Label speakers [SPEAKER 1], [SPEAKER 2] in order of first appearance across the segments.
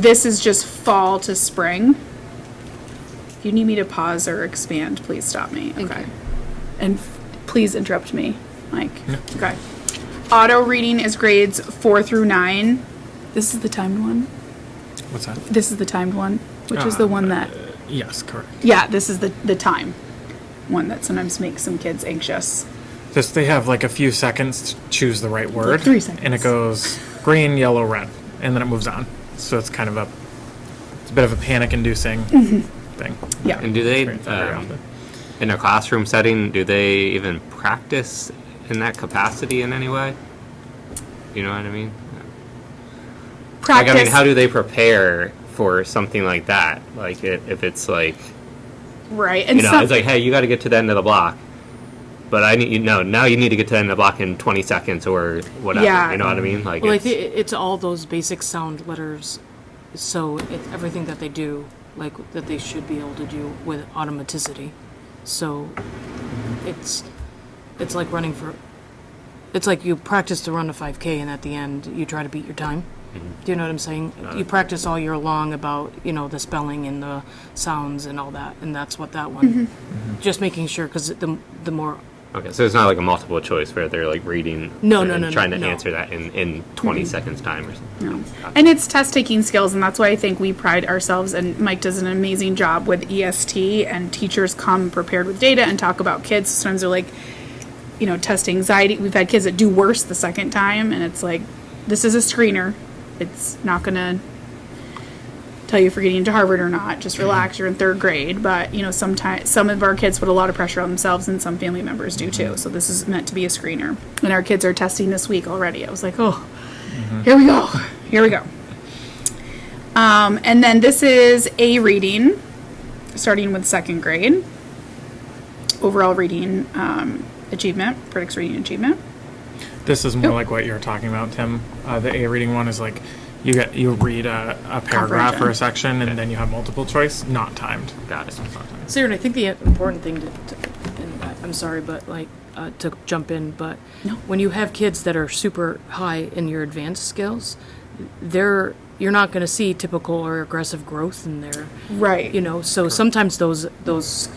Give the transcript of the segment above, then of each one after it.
[SPEAKER 1] This is just fall to spring. If you need me to pause or expand, please stop me.
[SPEAKER 2] Thank
[SPEAKER 1] Okay.
[SPEAKER 2] you.
[SPEAKER 1] And f- please interrupt me, Mike. Okay. Auto reading is grades four through nine. This is the timed one.
[SPEAKER 3] What's that?
[SPEAKER 1] This is the timed one, which is the
[SPEAKER 4] Uh,
[SPEAKER 1] one that,
[SPEAKER 3] Yes, correct.
[SPEAKER 1] yeah, this is the, the time one that sometimes makes some kids anxious.
[SPEAKER 3] Just they have like a few seconds to choose the right word.
[SPEAKER 1] three
[SPEAKER 3] And
[SPEAKER 1] seconds.
[SPEAKER 3] it goes green, yellow, red, and then it moves on. So it's kind of a, it's a bit of a panic-inducing
[SPEAKER 1] Mm-hmm.
[SPEAKER 3] thing.
[SPEAKER 1] Yeah.
[SPEAKER 4] And do they,
[SPEAKER 3] Experience that very
[SPEAKER 4] um,
[SPEAKER 3] often.
[SPEAKER 4] in a classroom setting, do they even practice in that capacity in any way? You know what I mean? Like, I mean, how do they prepare for something like that? Like, it, if it's like,
[SPEAKER 1] Right. And
[SPEAKER 4] you know,
[SPEAKER 1] some-
[SPEAKER 4] it's like, hey, you got to get to the end of the block. But I need you know now you need to get to the end of the block in 20 seconds or whatever.
[SPEAKER 1] Yeah.
[SPEAKER 4] You know what I mean? Like,
[SPEAKER 2] Well, I
[SPEAKER 4] it's-
[SPEAKER 2] think it's all those basic sound letters, so it's everything that they do, like, that they should be able to do with automaticity. So it's, it's like running for, it's like you practice to run a 5K and at the end, you try to beat your time. Do you know what I'm saying? You practice all year long about, you know, the spelling and the sounds and all that, and that's what that one, just making sure, because the, the more
[SPEAKER 4] okay, so it's not like a multiple choice where they're like reading
[SPEAKER 2] No,
[SPEAKER 4] and
[SPEAKER 2] no, no, no,
[SPEAKER 4] trying to
[SPEAKER 2] no. Mm-hmm.
[SPEAKER 4] answer that in in 20 seconds time or something.
[SPEAKER 1] No. And it's test taking skills, and that's why I think we pride ourselves, and Mike does an amazing job with EST, and teachers come prepared with data and talk about kids. Sometimes they're like, you know, test anxiety. We've had kids that do worse the second time, and it's like, this is a screener. It's not going to tell you if you're getting into Harvard or not. Just relax, you're in third grade. But, you know, sometimes some of our kids put a lot of pressure on themselves, and some family members do too. So this is meant to be a screener. And our kids are testing this week already. I was like, oh. Here we go. Here we go. Um, and then this is a reading, starting with second grade. Overall reading um, achievement, critics reading achievement.
[SPEAKER 3] This is
[SPEAKER 1] Oh.
[SPEAKER 3] more like what you're talking about, Tim. Uh, the A reading one is like, you get, you read a, a paragraph or
[SPEAKER 1] Comprehension.
[SPEAKER 3] a section, and then you have multiple choice, not timed.
[SPEAKER 4] Got it.
[SPEAKER 2] Sarah, I think the important thing to, to and I- I'm sorry, but like, uh, to jump in, but
[SPEAKER 1] No.
[SPEAKER 2] when you have kids that are super high in your advanced skills, they're, you're not going to see typical or aggressive growth in their,
[SPEAKER 1] Right.
[SPEAKER 2] you know, so sometimes those, those,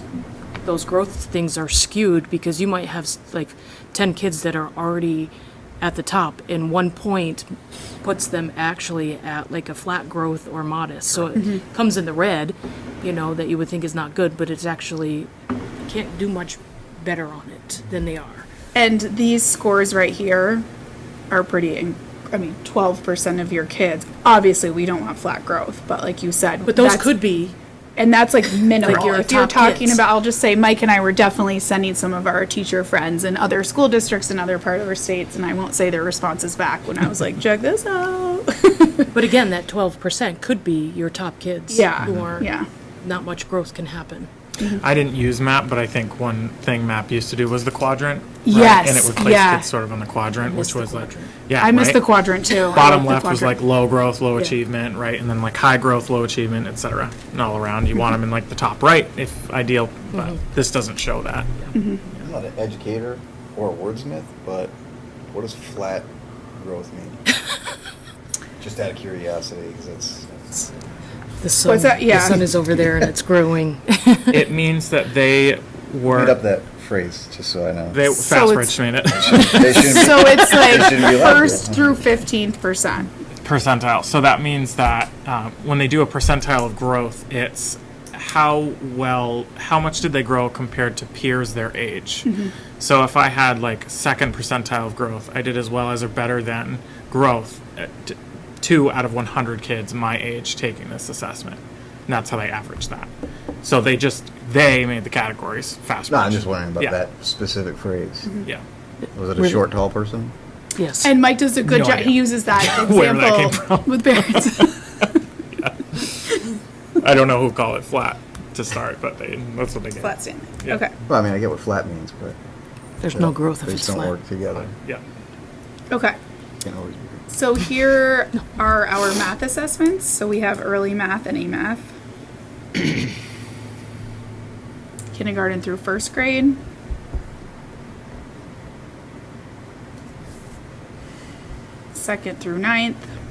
[SPEAKER 2] those growth things are skewed because you might have s- like 10 kids that are already at the top and one point puts them actually at like a flat growth or modest. So it
[SPEAKER 1] Mm-hmm.
[SPEAKER 2] comes in the red, you know, that you would think is not good, but it's actually can't do much better on it than they are.
[SPEAKER 1] And these scores right here are pretty. In- I mean, 12% of your kids. Obviously, we don't want flat growth, but like you said,
[SPEAKER 2] But those
[SPEAKER 1] that's-
[SPEAKER 2] could be
[SPEAKER 1] and that's like minimal.
[SPEAKER 2] Like your
[SPEAKER 1] if you're
[SPEAKER 2] top
[SPEAKER 1] talking
[SPEAKER 2] hits.
[SPEAKER 1] about, I'll just say Mike and I were definitely sending some of our teacher friends in other school districts and other part of our states, and I won't say their responses back when I was like, check this out.
[SPEAKER 2] But again, that twelve percent could be your top kids.
[SPEAKER 1] Yeah,
[SPEAKER 2] Who aren't.
[SPEAKER 1] yeah.
[SPEAKER 2] Not much growth can happen.
[SPEAKER 1] Mm-hmm.
[SPEAKER 3] I didn't use map, but I think one thing map used to do was the quadrant. right?
[SPEAKER 1] Yes,
[SPEAKER 3] And it would place
[SPEAKER 1] yeah.
[SPEAKER 3] kids sort of on the quadrant, which
[SPEAKER 2] missed the
[SPEAKER 3] was like,
[SPEAKER 2] quadrant.
[SPEAKER 3] yeah.
[SPEAKER 1] I missed the
[SPEAKER 3] right?
[SPEAKER 1] quadrant too. I
[SPEAKER 3] bottom
[SPEAKER 1] the
[SPEAKER 3] left was like
[SPEAKER 1] quadrant.
[SPEAKER 3] low growth, low achievement, right, and then like high growth, low achievement, et cetera, and all around. You want them in like the top right, if ideal, but
[SPEAKER 1] Mm-hmm.
[SPEAKER 3] this doesn't show that.
[SPEAKER 5] I'm not an educator or a wordsmith, but what does flat growth mean? Just out of curiosity, because it's, it's
[SPEAKER 2] The sun.
[SPEAKER 1] What's that? Yeah.
[SPEAKER 2] The sun is over there and it's growing.
[SPEAKER 3] It means that they
[SPEAKER 5] read up
[SPEAKER 3] were
[SPEAKER 5] that phrase just so I know.
[SPEAKER 3] they
[SPEAKER 1] So
[SPEAKER 3] fast
[SPEAKER 1] it's-
[SPEAKER 3] rich made it
[SPEAKER 5] They shouldn't be-
[SPEAKER 1] So it's like
[SPEAKER 5] shouldn't be allowed to.
[SPEAKER 1] first through 15%.
[SPEAKER 3] percentile. So that means that um, when they do a percentile of growth, it's how well, how much did they grow compared to peers their age. So if I had like second percentile of growth, I did as well as or better than growth. uh, t- two out of 100 kids my age taking this assessment. And that's how they average that. So they just they made the categories fast.
[SPEAKER 5] no, I'm
[SPEAKER 3] match.
[SPEAKER 5] just wondering about
[SPEAKER 3] Yeah,
[SPEAKER 5] that specific phrase.
[SPEAKER 2] Mm-hmm.
[SPEAKER 3] Yeah.
[SPEAKER 5] Was it a short, tall person?
[SPEAKER 2] yes.
[SPEAKER 1] And Mike does a good
[SPEAKER 3] No
[SPEAKER 1] job.
[SPEAKER 3] idea.
[SPEAKER 1] He uses that
[SPEAKER 3] Where that came
[SPEAKER 1] example with parents.
[SPEAKER 3] I don't know who called it flat to start, but they that's what they get.
[SPEAKER 1] Flat Stanley.
[SPEAKER 3] Yeah.
[SPEAKER 1] Okay.
[SPEAKER 5] Well, I mean, I get what flat means, but
[SPEAKER 2] There's no growth if
[SPEAKER 5] they
[SPEAKER 2] it's
[SPEAKER 5] don't
[SPEAKER 2] flat.
[SPEAKER 5] work together.
[SPEAKER 3] Yeah.
[SPEAKER 1] Okay.
[SPEAKER 5] Can't always be.
[SPEAKER 1] So here are our math assessments. So we have early math and A math. Kindergarten through first grade. Second through ninth.